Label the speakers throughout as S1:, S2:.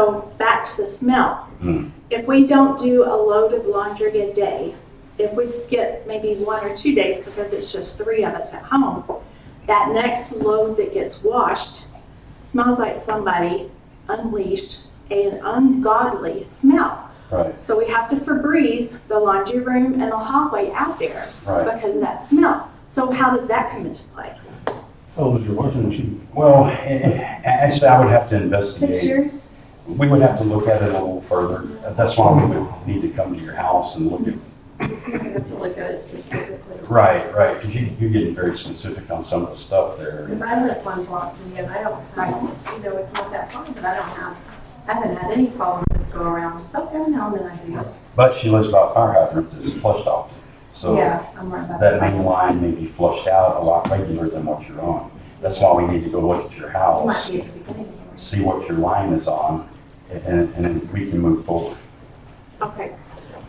S1: So back to the smell.
S2: Hmm.
S1: If we don't do a load of laundry a day, if we skip maybe one or two days because it's just three of us at home, that next load that gets washed smells like somebody unleashed an ungodly smell.
S2: Right,
S1: So we have to Febreze the laundry room and the hallway out there
S2: right.
S1: because of that smell. So how does that come into play?
S3: How old is your washing machine?
S2: Well, eh, eh, actually, I would have to
S1: Six
S2: investigate.
S1: years?
S2: We would have to look at it a little further. That's why we would need to come to your house and look at,
S4: You have to look at it specifically.
S2: right, right, because you, you're getting very specific on some of the stuff there.
S4: Because I live one block from you and I don't, I, you know, it's not that far, but I don't have, I haven't had any problems this go around. So every now and then I do.
S2: But she lives by a fire hydrant that's flushed off. So
S4: Yeah, I'm right about
S2: that main
S4: that.
S2: line may be flushed out a lot regular than what you're on. That's why we need to go look at your
S4: It Might
S2: house,
S4: be at the beginning.
S2: see what your line is on, and, and then we can move forward.
S1: Okay,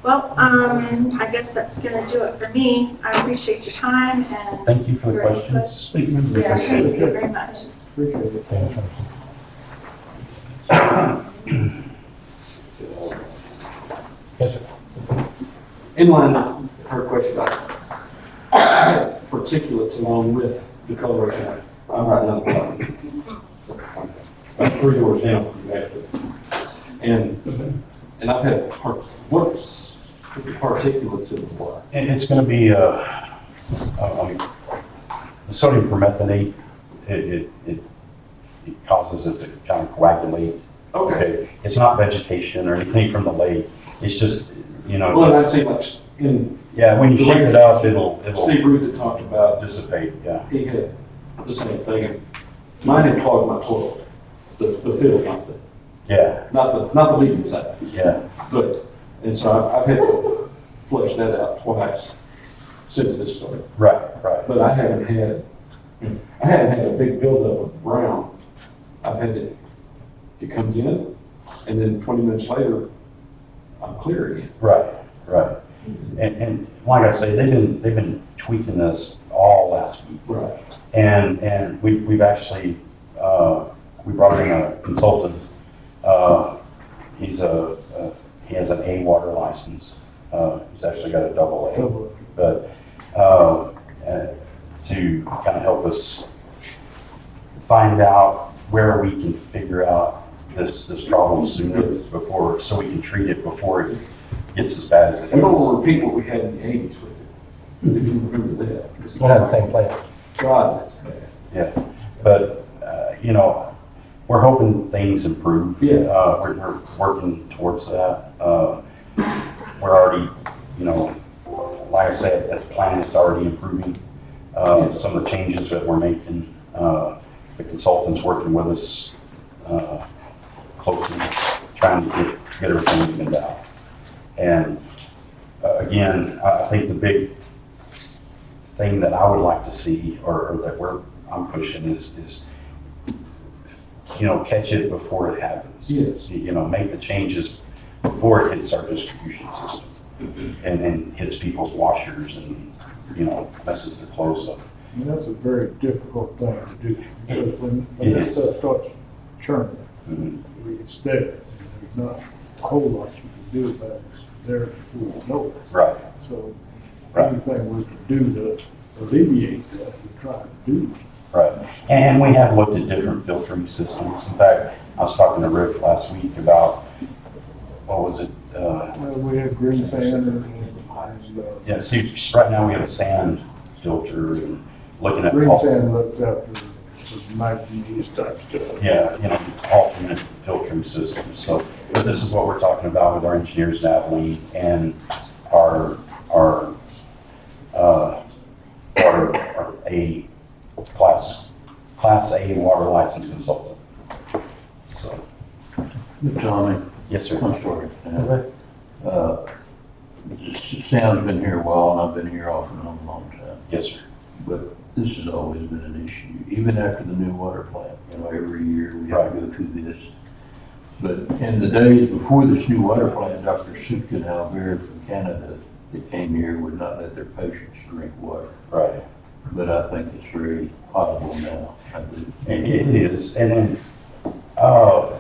S1: well, um, I guess that's gonna do it for me. I appreciate your time and
S2: Thank you for the questions.
S3: Thank you. Mr.
S1: yeah,
S3: Baker.
S1: thank you very much.
S3: Appreciate it.
S5: In line with her question, I- particulates along with the coloration. I'm right now. About three doors down from you, actually. And, and I've had, par- what's the particulates in the water?
S2: It- It's going to be, uh, um, the sodium permethanate, it, it, it it causes it to kind of coagulate. It's not vegetation or anything from the lake, it's just, you
S5: Well,
S2: know,
S5: I'd say like, in
S2: yeah, when you shake it up, it'll, it'll
S5: Steve Ruth had talked about
S2: dissipate, yeah.
S5: he had the same thing. Mine had clogged my toilet, the, the fill, not the,
S2: Yeah,
S5: not the, not the leaking side.
S2: yeah,
S5: But, and so I've, I've had to flush that out twice since this started.
S2: right, right,
S5: But I haven't had, I haven't had a big buildup of brown. I've had it, it comes in, and then twenty minutes later, I'm clear again.
S2: right, right. And, and like I say, they've been, they've been tweaking this all last week.
S5: Right.
S2: And, and we, we've actually, uh, we brought in a consultant. Uh, he's a, uh, he has an A water license. Uh, he's actually got a double A, but, uh, uh, to kind of help us find out where we can figure out this, this problem sooner before, so we can treat it before it gets as bad as it
S5: We don't
S2: is.
S5: want to repeat what we had in the eighties with it, if you remember that. because-
S6: We'll have the same plan.
S5: God, that's bad.
S2: Yeah, but, uh, you know, we're hoping things improve.
S5: Yeah.
S2: Uh, we're, we're working towards that. Uh, we're already, you know, like I said, that plan is already improving. Uh, some of the changes that we're making, uh, the consultant's working with us, uh, closely, trying to get, get everything evened out. And, uh, again, I, I think the big thing that I would like to see, or, or that we're, I'm pushing is, is, you know, catch it before it happens.
S5: Yes.
S2: You you know, make the changes before it hits our distribution system and then hits people's washers and, you know, messes the clothes up.
S7: And that's a very difficult thing to do, because when, when
S2: It
S7: that
S2: is.
S7: stuff starts churning,
S2: Mhm.
S7: it's there, and there's not a whole lot you can do about it, it's there before you know it.
S2: Right,
S7: So,
S2: Right.
S7: anything we can do to alleviate that, we try to do.
S2: right. And we have looked at different filtering systems. In fact, I was talking to Rick last week about, what was it? Uh,
S7: Well, we have green sand and, and, uh,
S2: yeah, see, right now we have a sand filter and looking at.
S7: green
S2: all-
S7: sand looks after the nineties type stuff.
S2: yeah, you know, alternate filtering systems. So, but this is what we're talking about with our engineers, Natalie, and our, our, uh, our, our A class, class A water license consultant. So,
S8: Tommy,
S2: yes, sir.
S8: I'm sorry. Uh, s- Sam's been here a while, and I've been here off and on a long time,
S2: Yes, sir.
S8: but this has always been an issue, even after the new water plant. You know, every year we have to go through this. But in the days before this new water plant, Dr. Sutka and Albert from Canada that came here would not let their patients drink water.
S2: Right.
S8: But I think it's very possible now. I do.
S2: It it is. And then, uh,